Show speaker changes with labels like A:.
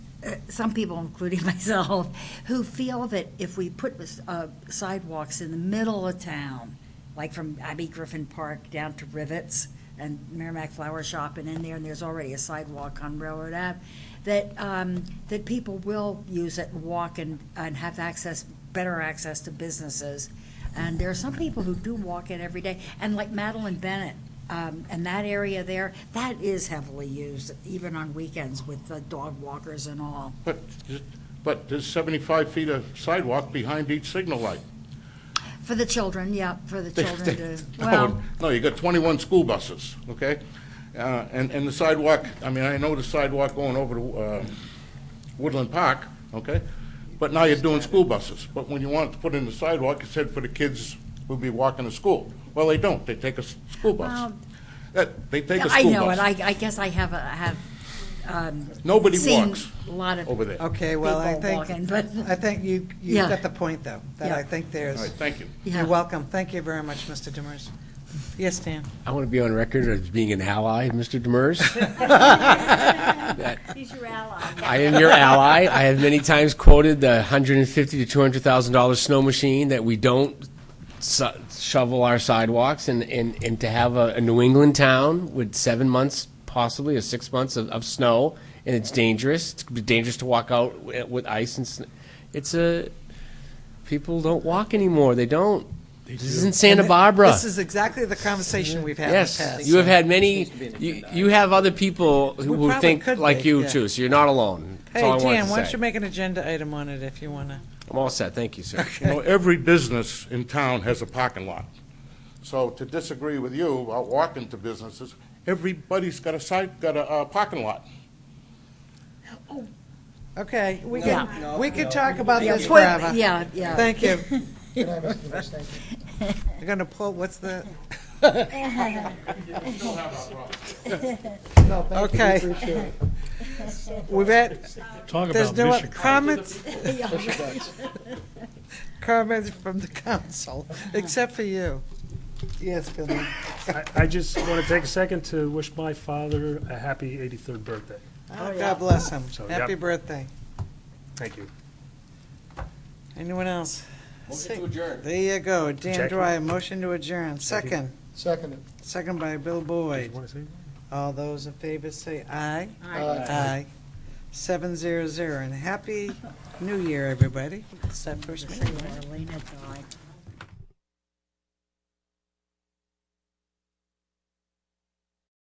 A: uh, some people, including myself, who feel that if we put uh, sidewalks in the middle of town, like from Abbey Griffin Park down to Rivets and Merrimack Flower Shop and in there, and there's already a sidewalk on Railroad Ave, that, um, that people will use it, and walk and, and have access, better access to businesses. And there are some people who do walk it every day, and like Madeline Bennett, um, and that area there, that is heavily used, even on weekends with the dog walkers and all.
B: But, but there's 75 feet of sidewalk behind each signal light.
A: For the children, yeah, for the children to,
B: No,
A: well,
B: No, you got 21 school buses, okay? Uh, And, and the sidewalk, I mean, I know the sidewalk going over to uh, Woodland Park, okay? But now you're doing school buses. But when you want to put in the sidewalk, it said for the kids who'll be walking to school. Well, they don't, they take a s- school bus.
A: Well-
B: That- They take a
A: I
B: school
A: know it,
B: bus.
A: I, I guess I have, a- have
B: Nobody
A: seen
B: walks
A: a lot of people
B: over there. All
C: Okay, well, I
A: walking,
C: think,
A: but,
C: I think you,
A: Yeah.
C: you've got the point, though, that I
A: Yeah.
C: think
B: right,
C: there's,
B: thank you.
A: Yeah.
C: you're welcome. Thank you very much, Mr. Demers. Yes, Dan?
D: I want to be on record as being an ally, Mr. Demers.
E: He's your ally.
D: I am your ally. I have many times quoted the hundred and fifty to two hundred thousand dollar snow machine that we don't so- shovel our sidewalks, and, and, and to have a, a New England town with seven months, possibly or six months of, of snow, and it's dangerous. It's dangerous to walk out wi- with ice and sn- it's a people don't walk anymore. They don't. This isn't Santa Barbara.
C: This is exactly the conversation we've had in the
D: Yes,
C: past.
D: you have had many, you, you have other people who
C: We
D: who
C: probably
D: think
C: could
D: like
C: make,
D: you
C: yeah.
D: too, so you're not alone. That's
C: Hey,
D: all I wanted
C: Dan, why
D: to
C: don't you
D: say.
C: make an agenda item on it if you want to?
D: I'm all set, thank you, sir.
B: You know, every business in town has a parking lot. So to disagree with you about walking to businesses, everybody's got a side, got a, uh parking lot.
C: Okay, we
A: Yeah.
C: can, we could talk about this
A: Put-
C: forever.
A: yeah, yeah.
C: Thank you. You're going to pull, what's the? Okay. We've had,
F: Talk
C: There's
F: about
C: no other
F: mission.
C: comments? Comments from the council, except for you. Oh, Yes, Bill.
F: I- I just want to take a second to wish my father a happy 83rd birthday.
C: God bless him.
F: So, yep.
C: Happy birthday.
F: Thank you.
C: Anyone else?
D: Motion to adjourn.
C: There you go. Dan
F: Second.
C: Dwyer, motion to adjourn. Second.
G: Seconded.
C: Second by Bill Boyd.
F: Want to say?
C: All those in favor say aye. Aye. Seven zero zero. And happy New Year, everybody. It's that first meeting.
A: Marlena died.